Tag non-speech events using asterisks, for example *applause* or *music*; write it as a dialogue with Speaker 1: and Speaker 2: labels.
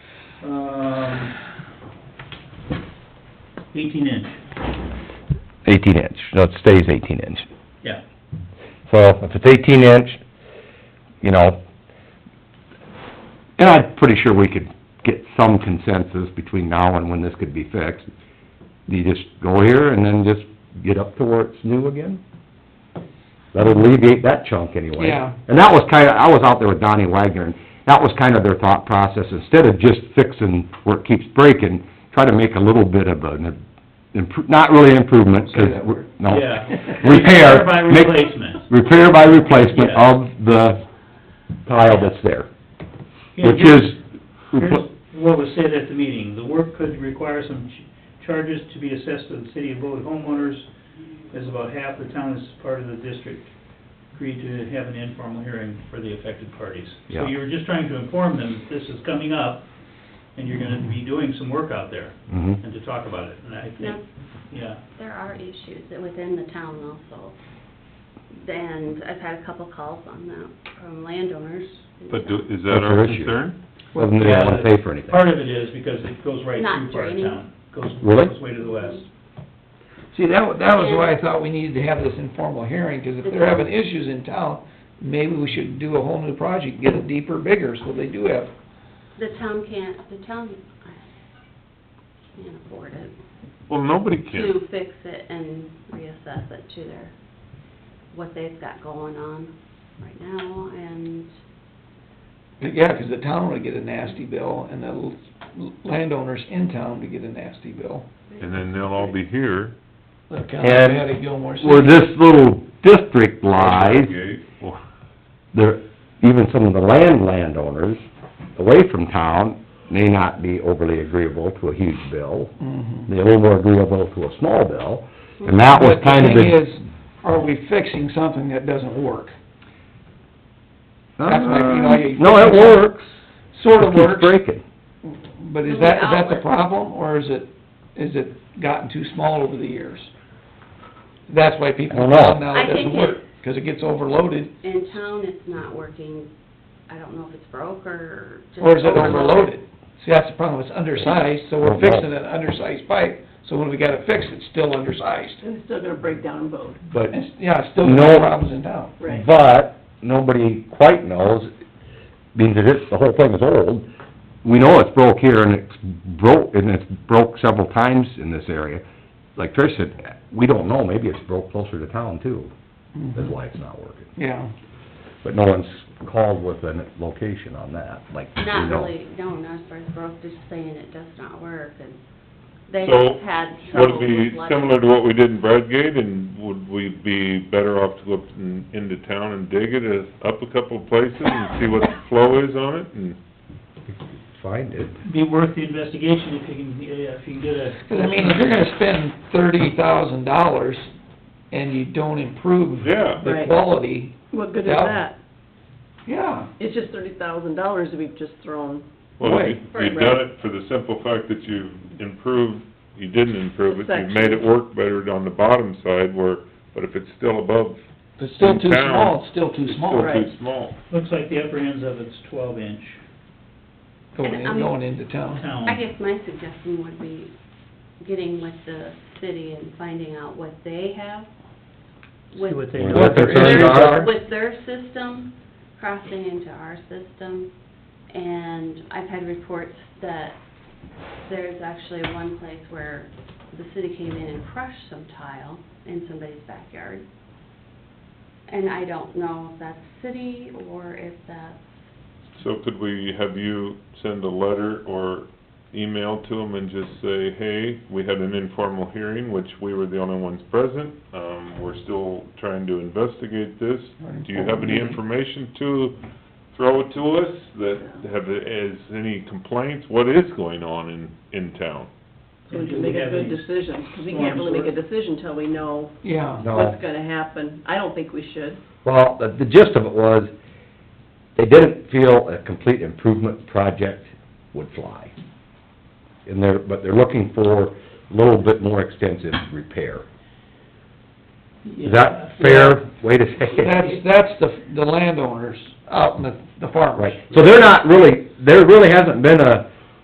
Speaker 1: um, eighteen inch,
Speaker 2: Eighteen inch, no, it stays eighteen inch.
Speaker 1: yeah.
Speaker 2: So if it's eighteen inch, you know, and I'm pretty sure we could get some consensus between now and when this could be fixed. You just go here and then just get up to where it's new again? That'll alleviate that chunk anyway.
Speaker 3: Yeah.
Speaker 2: And that was kinda, I was out there with Donnie Wagner, and that was kind of their thought process, instead of just fixing where it keeps breaking, try to make a little bit of an, impro- not really improvement, 'cause,
Speaker 3: Say that
Speaker 2: we're-
Speaker 3: word.
Speaker 2: no.
Speaker 1: Yeah.
Speaker 2: Oh. Repair.
Speaker 1: By
Speaker 2: make-
Speaker 1: replacement.
Speaker 2: Repair by replacement
Speaker 1: Yeah.
Speaker 2: of the tile that's there,
Speaker 1: Yeah,
Speaker 2: which
Speaker 1: here's-
Speaker 2: is,
Speaker 1: Here's what was said at the meeting. The work could require some ch- charges to be assessed to the city of Bode homeowners, as about half the town is part of the district. Agreed to have an informal hearing for the affected parties. So
Speaker 2: Yeah.
Speaker 1: you were just trying to inform them that this is coming up, and you're gonna be doing some work out there,
Speaker 2: Mhm.
Speaker 1: and to talk about it, and I
Speaker 4: No,
Speaker 1: think, yeah.
Speaker 4: there are issues within the town also. And I've had a couple calls on that from landowners.
Speaker 5: But do, is
Speaker 2: That's
Speaker 5: that
Speaker 2: our
Speaker 5: our
Speaker 2: issue.
Speaker 5: concern?
Speaker 2: doesn't really wanna pay for anything.
Speaker 1: Part of it is because it goes right
Speaker 4: Not
Speaker 1: through part of
Speaker 4: draining.
Speaker 1: town. Goes,
Speaker 2: Really?
Speaker 1: goes way to the west.
Speaker 3: See, that, wa- that was why I thought we needed to have this informal hearing, 'cause if they're having issues in town, maybe we should do a whole new project, get it deeper, bigger, so they do have,
Speaker 4: The town can't, the town uh, can't afford it
Speaker 5: Well, nobody can.
Speaker 4: to fix it and reassess it to their, what they've got going on right now and
Speaker 3: yeah, 'cause the town would get a nasty bill, and the l- landowners in town would get a nasty bill.
Speaker 5: And then they'll all be here.
Speaker 3: Look how
Speaker 2: And
Speaker 3: bad it Gilmore City.
Speaker 2: Where this little district lies,
Speaker 5: Okay, well,
Speaker 2: there, even some of the land landowners away from town may not be overly agreeable to a huge bill.
Speaker 3: Mhm.
Speaker 2: They're a little more agreeable to a small bill, and that was
Speaker 3: But
Speaker 2: kind of the...
Speaker 3: thing is, are we fixing something that doesn't work? that's like, you know, you-
Speaker 2: No, it works.
Speaker 3: Sort of
Speaker 2: It keeps
Speaker 3: works,
Speaker 2: breaking.
Speaker 3: but is
Speaker 4: The
Speaker 3: that, is that the
Speaker 4: outlet.
Speaker 3: problem, or is it, is it gotten too small over the years? That's why people
Speaker 2: I don't
Speaker 3: now
Speaker 2: know.
Speaker 3: now it
Speaker 4: I
Speaker 3: doesn't
Speaker 4: think
Speaker 3: work, 'cause it gets overloaded,
Speaker 4: in town it's not working. I don't know if it's broke or just.
Speaker 3: or is it
Speaker 4: overloaded.
Speaker 3: overloaded? See, that's the problem, it's undersized, so
Speaker 2: Don't
Speaker 3: we're
Speaker 2: know.
Speaker 3: fixing an undersized pipe, so when we gotta fix it, it's still undersized.
Speaker 6: And it's still gonna break down and vote,
Speaker 2: But,
Speaker 3: And it's- yeah, it's still
Speaker 2: No.
Speaker 3: got problems in town.
Speaker 6: right?
Speaker 2: but, nobody quite knows, means that it's, the whole thing is old. We know it's broke here and it's broke, and it's broke several times in this area. Like Trish said, we don't know, maybe it's broke closer to town too, that's why it's not working.
Speaker 3: Yeah.
Speaker 2: But no one's called with a location on that, like, we
Speaker 4: Not
Speaker 2: know.
Speaker 4: really, no, not as far as broke, just saying it does not work, and they
Speaker 5: *laughs* So,
Speaker 4: have had
Speaker 5: would it
Speaker 4: trouble
Speaker 5: be
Speaker 4: with lighting.
Speaker 5: similar to what we did in Bradgate, and would we be better off to go up in- into town and dig it uh, up a couple of places and see what the flow is on it, and
Speaker 2: Find it.
Speaker 1: Be worth the investigation if you can, yeah, if you can get a.
Speaker 3: 'Cause *laughs* I mean, if you're gonna spend thirty thousand dollars and you don't improve
Speaker 5: Yeah.
Speaker 3: the
Speaker 6: Right.
Speaker 3: quality,
Speaker 6: What good is
Speaker 3: Yeah.
Speaker 6: that?
Speaker 3: yeah,
Speaker 6: It's just thirty thousand dollars that we've just thrown.
Speaker 5: Well,
Speaker 3: Right.
Speaker 5: you- you've done it for the simple fact that you've improved, you didn't improve it, you've made it work better on the bottom side where, but if it's still above,
Speaker 3: if it's still
Speaker 5: In
Speaker 3: too
Speaker 5: town,
Speaker 3: small, it's still too
Speaker 5: it's
Speaker 3: small.
Speaker 5: still
Speaker 6: Right.
Speaker 5: too small.
Speaker 1: Looks like the upper ends of it's twelve inch
Speaker 3: Going in,
Speaker 4: And, um,
Speaker 3: going into town.
Speaker 1: town.
Speaker 4: I guess my suggestion would be getting with the city and finding out what they have.
Speaker 1: See what they
Speaker 2: Or
Speaker 1: know.
Speaker 2: what their concerns are.
Speaker 4: With their system, crossing into our system, and I've had reports that there's actually one place where the city came in and crushed some tile in somebody's backyard. And I don't know if that's city or if that's
Speaker 5: So could we have you send a letter or email to them and just say, hey, we had an informal hearing, which we were the only ones present, um, we're still trying to investigate this. Do you have any information to throw to us that have, is any complaints, what is going on in, in town?
Speaker 6: So we can make a good decision, 'cause we can't really make a decision till we know
Speaker 3: Yeah.
Speaker 2: No.
Speaker 6: what's gonna happen. I don't think we should.
Speaker 2: Well, the the gist of it was, they didn't feel a complete improvement project would fly. And they're, but they're looking for a little bit more extensive repair. Is that fair way to say
Speaker 3: That's,
Speaker 2: it?
Speaker 3: that's the, the landowners out in the, the farmers.
Speaker 2: Right, so they're not really, there really hasn't been a